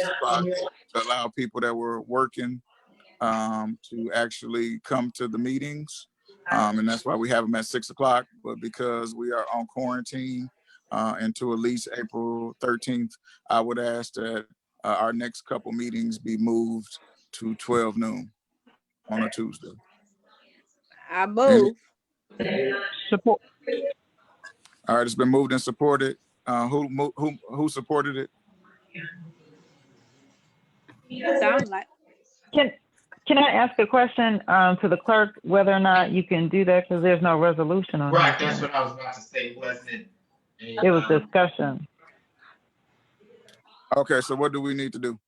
spot to allow people that were working um, to actually come to the meetings. Um, and that's why we have them at six o'clock, but because we are on quarantine uh, until at least April thirteenth, I would ask that uh, our next couple meetings be moved to twelve noon on a Tuesday. I move. Support, All right, it's been moved and supported. Uh, who, mo- who, who supported it? Sound like, can, can I ask a question, um, to the clerk, whether or not you can do that, because there's no resolution on Right, it? that's what I was about to say, wasn't it? um, It was just. discussion. Okay, so what do we need to do?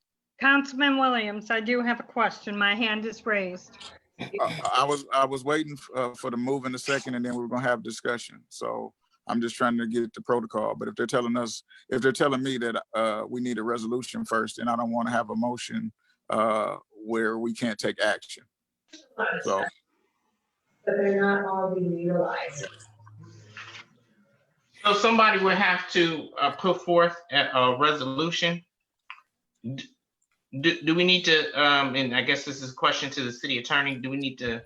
Councilman Williams, I do have a question. My hand is raised. Uh, I was, I was waiting uh, for the move in a second and then we were gonna have discussion. So I'm just trying to get the protocol, but if they're telling us, if they're telling me that uh, we need a resolution first, and I don't want to have a motion uh, where we can't take action. So, but they're not all being utilized. So somebody would have to uh, put forth a, a resolution. D- Do, do we need to, um, and I guess this is a question to the city attorney, do we need to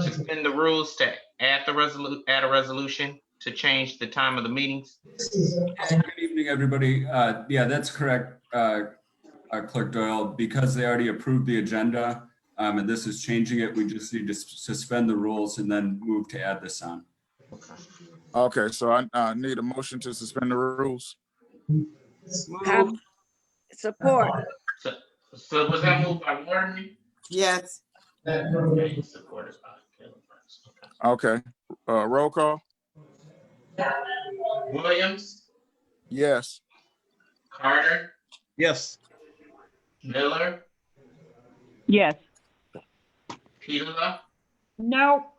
suspend the rules to add the resolu, add a resolution to change the time of the meetings? Good evening, everybody. Uh, Yeah, that's correct, uh, uh, Clerk Doyle. Because they already approved the agenda, um, and this is changing it, we just need to s- suspend the rules and then move to add this on. okay, so I uh, need a motion to suspend the rules. I support. So, so was that moved by Warren? Yes, Okay, supported by Taylor Burns. Okay, uh, roll call? Okay. Williams, Yes. Carter, Yes. Miller, Yes. Petula, No,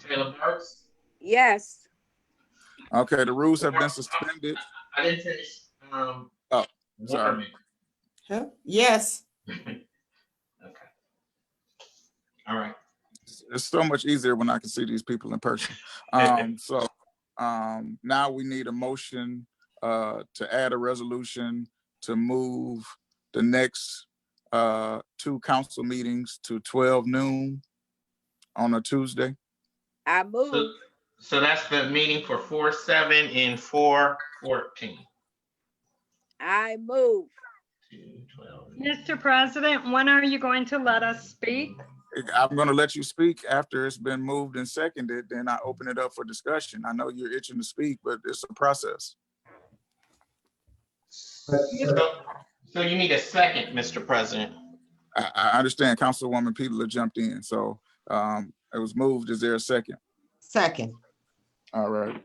Taylor Burks. Yes. Okay, the rules have been suspended. I didn't finish, um. Oh, sorry. Waterman. Huh? yes, Okay. All right. It's so much easier when I can see these people in person. Um, so, um, now we need a motion, uh, to add a resolution to move the next, uh, two council meetings to twelve noon on a Tuesday. I So, move. so that's the meeting for four, seven and four, fourteen. I move. Two, twelve. Mr. President, when are you going to let us speak? I'm gonna let you speak after it's been moved and seconded, then I open it up for discussion. I know you're itching to speak, but it's a process. So so you need a second, Mr. President. I, I understand Councilwoman Petula jumped in, so, um, it was moved. Is there a second? second, All right.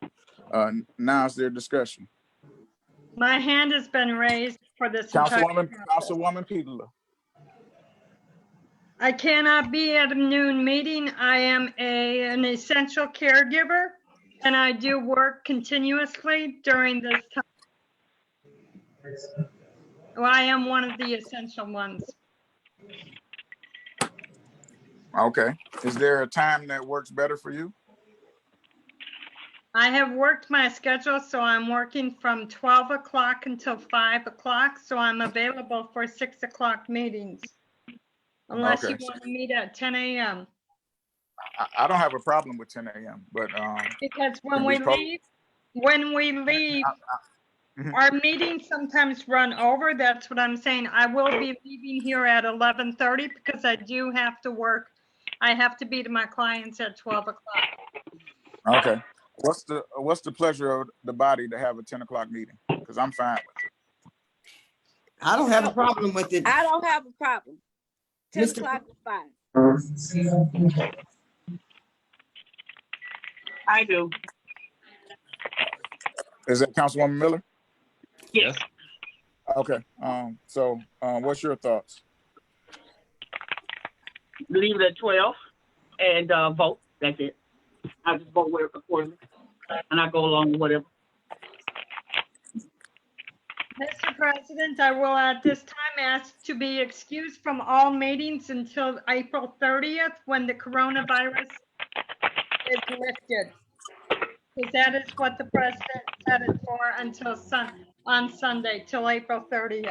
Uh, n- now is there discussion? My hand has been raised for this. entire Councilwoman, process. Councilwoman Petula. I cannot be at a noon meeting. I am a, an essential caregiver and I do work continuously during this time. Well, I am one of the essential ones. Okay. Is there a time that works better for you? I have worked my schedule, so I'm working from 12 o'clock until 5 o'clock, so I'm available for 6 o'clock meetings. Unless you Okay. want to meet at 10 a.m., I, I don't have a problem with ten AM, but, um, because when Can we we prob- Ah, leave, when we leave, Mhm. our meetings sometimes run over, that's what I'm saying. I will be leaving here at 11:30 because I do have to work. I have to be to my clients at 12 o'clock. okay. What's the, what's the pleasure of the body to have a ten o'clock meeting? Cause I'm fine. I don't have a problem with it. I don't have a problem. Ten Mr. o'clock is fine. I do. Is that Councilwoman Miller? Yes. Okay, um, so, um, what's your thoughts? leave it at twelve and uh, vote. That's it. I just vote whatever accordingly, and I go along with whatever. Mr. President, I will at this time ask to be excused from all meetings until April 30th, when the coronavirus is lifted. Because that is what the president said it for until Sun, on Sunday, till April 30th.